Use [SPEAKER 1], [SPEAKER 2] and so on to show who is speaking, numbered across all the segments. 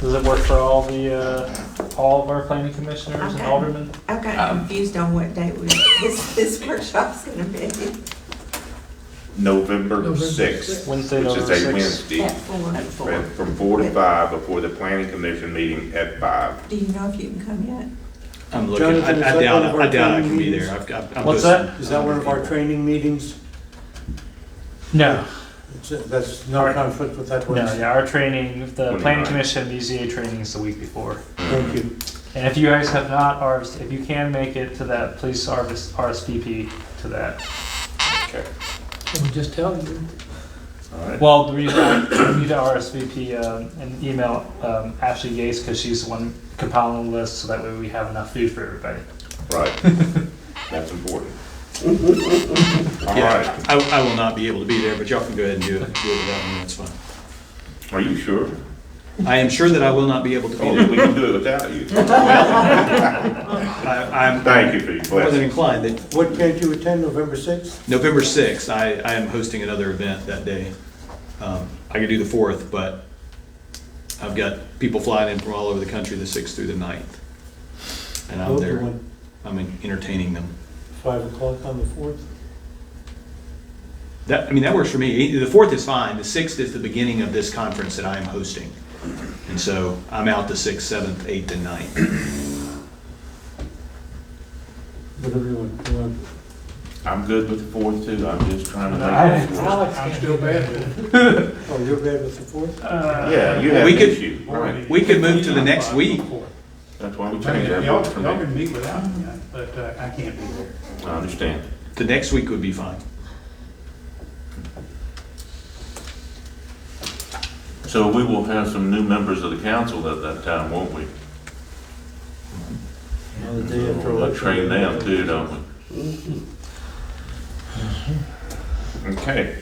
[SPEAKER 1] Does it work for all the, uh, all of our planning commissioners and
[SPEAKER 2] Okay.
[SPEAKER 1] aldermen?
[SPEAKER 2] I got
[SPEAKER 3] Um,
[SPEAKER 2] confused on what day we, this, this workshop's gonna be
[SPEAKER 4] November
[SPEAKER 5] November
[SPEAKER 4] sixth,
[SPEAKER 5] sixth.
[SPEAKER 1] Wednesday,
[SPEAKER 4] which is
[SPEAKER 1] November
[SPEAKER 4] a
[SPEAKER 1] sixth.
[SPEAKER 4] Wednesday,
[SPEAKER 2] at four.
[SPEAKER 3] At
[SPEAKER 4] from-
[SPEAKER 3] four.
[SPEAKER 4] from four to five before the planning commission meeting at five.
[SPEAKER 2] Do you know if you can come yet?
[SPEAKER 3] I'm looking,
[SPEAKER 6] Jonathan, is
[SPEAKER 3] I I
[SPEAKER 6] that
[SPEAKER 3] doubt,
[SPEAKER 6] one of
[SPEAKER 3] it.
[SPEAKER 6] our
[SPEAKER 3] I doubt I
[SPEAKER 6] training
[SPEAKER 3] can be
[SPEAKER 6] meetings?
[SPEAKER 3] there. I've got. I'm
[SPEAKER 1] What's
[SPEAKER 3] hosting-
[SPEAKER 1] that?
[SPEAKER 6] Is that one of our training meetings?
[SPEAKER 1] No,
[SPEAKER 6] It's- That's no conflict with that
[SPEAKER 1] no,
[SPEAKER 6] one?
[SPEAKER 1] yeah, our training, the planning
[SPEAKER 4] Twenty-nine.
[SPEAKER 1] commission, BZA training is the week before.
[SPEAKER 6] Thank you.
[SPEAKER 1] And if you guys have not RS, if you can make it to that, please RS RSVP to that.
[SPEAKER 4] Okay.
[SPEAKER 5] Can we just tell you?
[SPEAKER 4] All right.
[SPEAKER 1] Well, the reason I you need to RSVP um, and email um, Ashley Gates because she's the one compiling the list, so that way we have enough food for everybody.
[SPEAKER 4] Right. That's important. All
[SPEAKER 3] Yeah,
[SPEAKER 4] right.
[SPEAKER 3] I, I will not be able to be there, but y'all can go ahead and do it, do it without me, that's fine.
[SPEAKER 4] Are you sure?
[SPEAKER 3] I am sure that I will not be able to be
[SPEAKER 4] Oh,
[SPEAKER 3] there.
[SPEAKER 4] we can do it without you.
[SPEAKER 3] I, I'm.
[SPEAKER 4] Thank you for your
[SPEAKER 3] I wasn't
[SPEAKER 4] blessing.
[SPEAKER 3] inclined that,
[SPEAKER 6] What can't you attend, November 6th?
[SPEAKER 3] November sixth, I, I am hosting another event that day. Um, I could do the fourth, but I've got people flying in from all over the country the sixth through the ninth. And I'm
[SPEAKER 6] Open
[SPEAKER 3] there,
[SPEAKER 6] one,
[SPEAKER 3] I'm entertaining them.
[SPEAKER 6] 5 o'clock on the 4th?
[SPEAKER 3] That, I mean, that works for me. The fourth is fine. The sixth is the beginning of this conference that I am hosting. And so I'm out the sixth, seventh, eighth, and ninth.
[SPEAKER 6] Whatever you want. You want.
[SPEAKER 4] I'm good with the fourth too. I'm just trying to
[SPEAKER 1] I-
[SPEAKER 4] make. it work.
[SPEAKER 5] I'm still bad with it.
[SPEAKER 6] Oh, you're bad with the 4th?
[SPEAKER 1] Uh,
[SPEAKER 4] Yeah, you have
[SPEAKER 3] We
[SPEAKER 4] an
[SPEAKER 3] could-
[SPEAKER 4] issue. Right.
[SPEAKER 3] We could move to the next week.
[SPEAKER 4] That's why we
[SPEAKER 5] I mean,
[SPEAKER 4] changed our
[SPEAKER 5] Y'all
[SPEAKER 4] vote from
[SPEAKER 5] y'all
[SPEAKER 4] there.
[SPEAKER 5] can meet without me, but uh, I can't be there.
[SPEAKER 4] I understand.
[SPEAKER 3] The next week would be fine.
[SPEAKER 4] So we will have some new members of the council at that time, won't we?
[SPEAKER 6] On the day after
[SPEAKER 4] We'll
[SPEAKER 6] election.
[SPEAKER 4] train them too, don't we? Okay.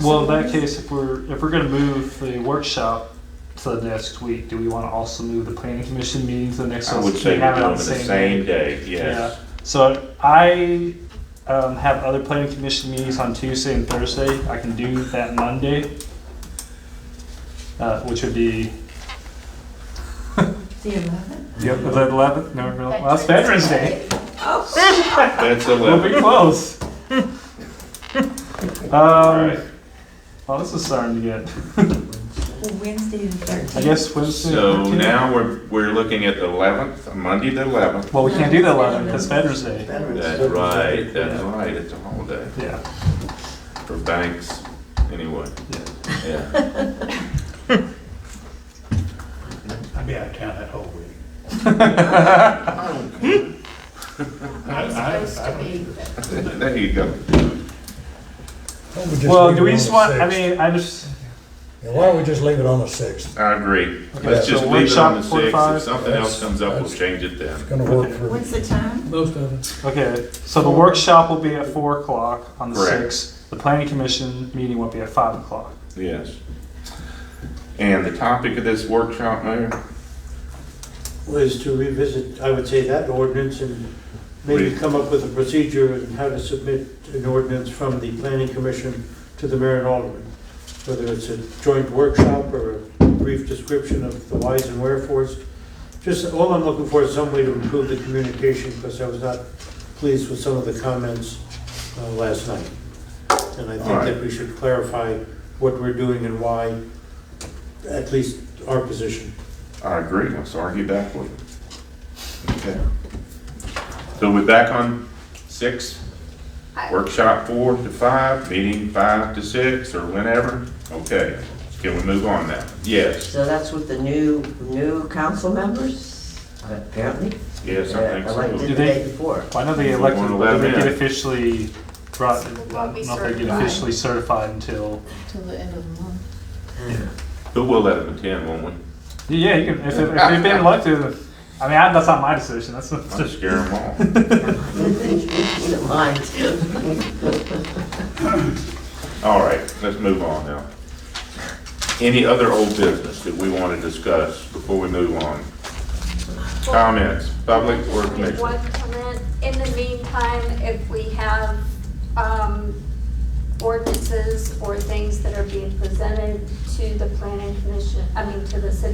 [SPEAKER 1] Well, in that case, if we're if we're gonna move the workshop to the next week, do we want to also move the planning commission meeting to the next?
[SPEAKER 4] I
[SPEAKER 1] one so
[SPEAKER 4] would
[SPEAKER 1] we
[SPEAKER 4] say we're
[SPEAKER 1] have it
[SPEAKER 4] doing
[SPEAKER 1] on
[SPEAKER 4] it the
[SPEAKER 1] day?
[SPEAKER 4] same day,
[SPEAKER 1] Yeah.
[SPEAKER 4] yes.
[SPEAKER 1] So I um, have other planning commission meetings on Tuesday and Thursday. I can do that Monday, uh, which would be
[SPEAKER 2] The eleventh?
[SPEAKER 1] the eleventh. No, no, that's Veterans Day.
[SPEAKER 2] Oh,
[SPEAKER 4] That's
[SPEAKER 1] We'll be
[SPEAKER 4] eleven.
[SPEAKER 1] close.
[SPEAKER 4] All
[SPEAKER 1] Um,
[SPEAKER 4] right.
[SPEAKER 1] well, this is starting to get.
[SPEAKER 2] Wednesday the thirteenth.
[SPEAKER 1] I guess Wednesday.
[SPEAKER 4] So
[SPEAKER 1] 13th?
[SPEAKER 4] now we're, we're looking at the eleventh, Monday the eleventh.
[SPEAKER 1] Well, we can't do the eleventh because Veterans Day.
[SPEAKER 4] That's right, that's right, it's a holiday
[SPEAKER 1] Yeah.
[SPEAKER 4] for banks, anyway. Yeah.
[SPEAKER 5] I'll be out of town that whole week. I- I-
[SPEAKER 7] It's supposed to be,
[SPEAKER 4] There you go.
[SPEAKER 1] Well, do we just want, I mean, I just,
[SPEAKER 8] Why don't we just leave it on the sixth?
[SPEAKER 4] I agree.
[SPEAKER 1] Okay,
[SPEAKER 4] Let's just
[SPEAKER 1] so
[SPEAKER 4] leave it on the
[SPEAKER 1] workshop
[SPEAKER 4] sixth.
[SPEAKER 1] 45.
[SPEAKER 4] If something else comes up, we'll change it then.
[SPEAKER 8] It's gonna work for,
[SPEAKER 2] What's the time?
[SPEAKER 5] Most of us.
[SPEAKER 1] okay, so the workshop will be at four o'clock on the
[SPEAKER 4] Correct.
[SPEAKER 1] sixth. The planning commission meeting will be at five o'clock.
[SPEAKER 4] Yes. And the topic of this workshop, Mayor?
[SPEAKER 6] Was to revisit, I would say, that ordinance and maybe
[SPEAKER 4] Re-
[SPEAKER 6] come up with a procedure and how to submit an ordinance from the planning commission to the mayor and alderman. Whether it's a joint workshop or a brief description of the whys and wherefores. Just, all I'm looking for is some way to improve the communication, because I was not pleased with some of the comments uh, last night. And I
[SPEAKER 4] All
[SPEAKER 6] think
[SPEAKER 4] right.
[SPEAKER 6] that we should clarify what we're doing and why, at least our position.
[SPEAKER 4] I agree, let's argue back with it. Okay. So we're back on six, workshop four to five, meeting five to six, or whenever? Okay, can we move on now? Yes,
[SPEAKER 9] So that's with the new, new council members, apparently?
[SPEAKER 4] yes, I think
[SPEAKER 9] Uh,
[SPEAKER 4] so.
[SPEAKER 9] Elected
[SPEAKER 1] Do
[SPEAKER 9] the
[SPEAKER 1] they-
[SPEAKER 9] day before.
[SPEAKER 1] Why don't they
[SPEAKER 4] If we
[SPEAKER 1] elect,
[SPEAKER 4] wanna
[SPEAKER 1] do
[SPEAKER 4] let
[SPEAKER 1] they
[SPEAKER 4] them
[SPEAKER 1] get
[SPEAKER 4] in.
[SPEAKER 1] officially brought,
[SPEAKER 7] It
[SPEAKER 1] not
[SPEAKER 7] won't be
[SPEAKER 1] they get
[SPEAKER 7] certified.
[SPEAKER 1] officially certified until,
[SPEAKER 7] till the end of the month.
[SPEAKER 4] But we'll let them attend, won't we?
[SPEAKER 1] yeah, you can, if, if they've been elected, I mean, I- that's not my decision, that's,
[SPEAKER 4] I'll
[SPEAKER 1] that's-
[SPEAKER 4] scare them off.
[SPEAKER 9] Don't mind.
[SPEAKER 4] All right, let's move on now. Any other old business that we want to discuss before we move on? Comments, public or
[SPEAKER 7] Just
[SPEAKER 4] commission?
[SPEAKER 7] One comment, in the meantime, if we have um, ordinances or things that are being presented to the planning commission, I mean, to the city